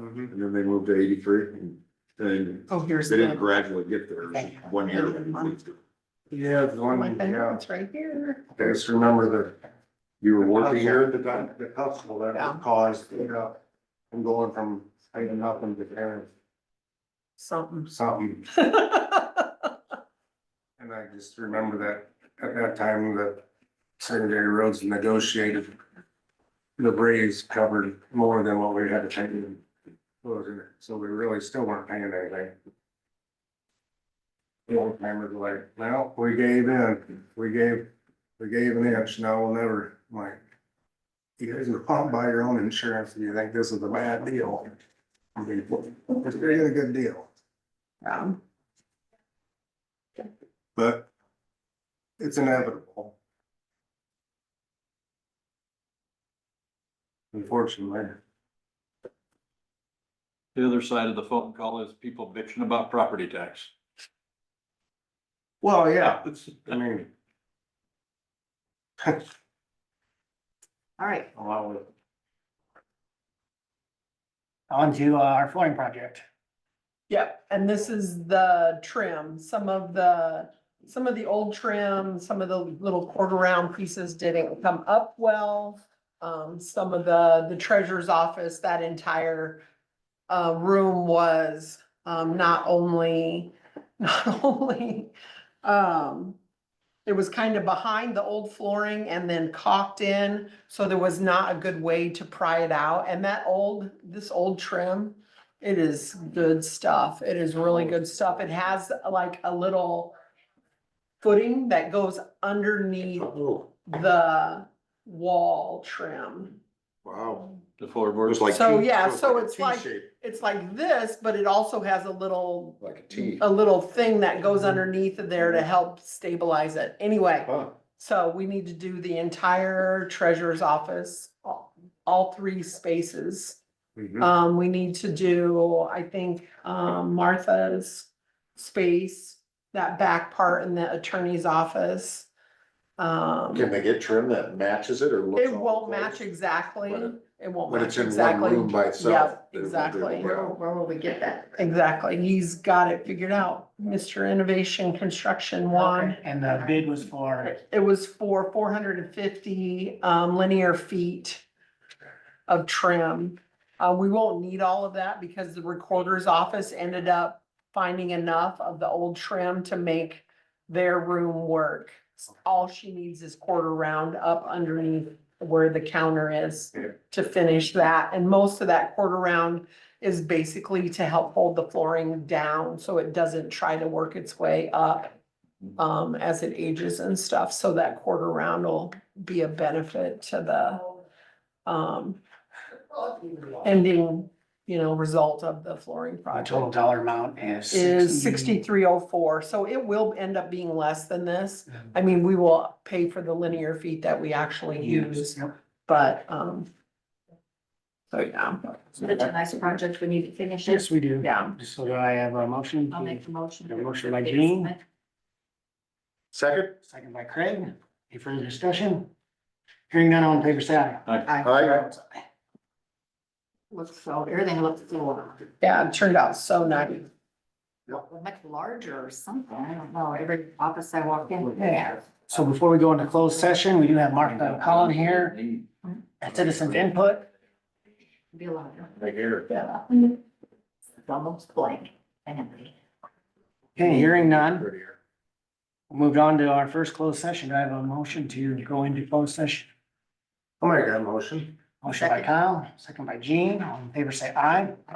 Mm-hmm. and then they moved to eighty-three, and then Oh, here's they didn't the, gradually get there, it was just one year. Yeah, the Oh, my one, yeah, it's right here. I just remember You were the. working here, The, doc- the hustle Yeah. that caused, you know, from going from hiding nothing to there, Something. Um, something. And I just remember that at that time, the secondary roads negotiated. The Braves covered more than what we had to pay them. So we really still weren't paying anything. The old timers were like, well, we gave in, we gave, we gave an inch, now we'll never, I'm like. You guys are pumped by your own insurance, and you think this is a bad deal. I mean, it's really a good deal. Yeah. But it's inevitable. Unfortunately, The other side of the phone call is people bitching about property tax. well, yeah, I mean. All right, A lot of, On to uh, our flooring project. yep, and this is the trim, some of the, some of the old trim, some of the little quarter round pieces didn't come up well. Um, some of the, the treasurer's office, that entire uh, room was um, not only, not only um, it was kind of behind the old flooring and then caulked in, so there was not a good way to pry it out. And that old, this old trim, it is good stuff. It is really good stuff. It has like a little footing that goes underneath oh, the wall trim. wow, The it was floorboards, like. So, T- Oh, yeah, it was so a it's like- T-shape, It's like this, but it also has a little, Like a T. a little thing that goes underneath of there to help stabilize it. Anyway, Oh. Huh. so we need to do the entire treasurer's office, all, all three spaces. mhm. Um, we need to do, I think, um, Martha's space, that back part in the attorney's office. Um, Can they get trim that matches it or looks? it won't all close? match exactly, When it- it won't When match it's in one exactly. room by itself. Yep, exactly. Where will we get that? Exactly, he's got it figured out, Mr. Innovation Construction Juan. And uh, the bid was for, It was for four hundred and fifty, um, linear feet of trim. Uh, we won't need all of that because the recorder's office ended up finding enough of the old trim to make their room work. All she needs is quarter round up underneath where the counter is Yeah. to finish that. And most of that quarter round is basically to help hold the flooring down so it doesn't try to work its way up um, as it ages and stuff. So that quarter round will be a benefit to the um, ending, you know, result of the flooring the project total dollar amount is. is sixty-three oh four. So it will end up being less than this. I mean, we will pay for the linear feet that we actually use, Yep. but, um, so yeah, Such a nice project when you finish it. Yes, we do. yeah. So do I have a motion? I'll make the motion. Got a motion by Jean. Second, Second by Craig. Any further discussion? Hearing none, all in favor, say aye. aye, Looks so, everything looks so, Yeah, it turned out so nice. much larger or something. I don't know. Every office I walk in. Yeah. So before we go into closed session, we do have Martha Collin here, citizens input. Be a lot. of- right here. Yeah. It's Almost blank. Anyway. Okay, hearing none. Moved on to our first closed session. Do I have a motion to go into closed session. I'll make that motion. Motion by Kyle, second by Jean. All in favor, say aye.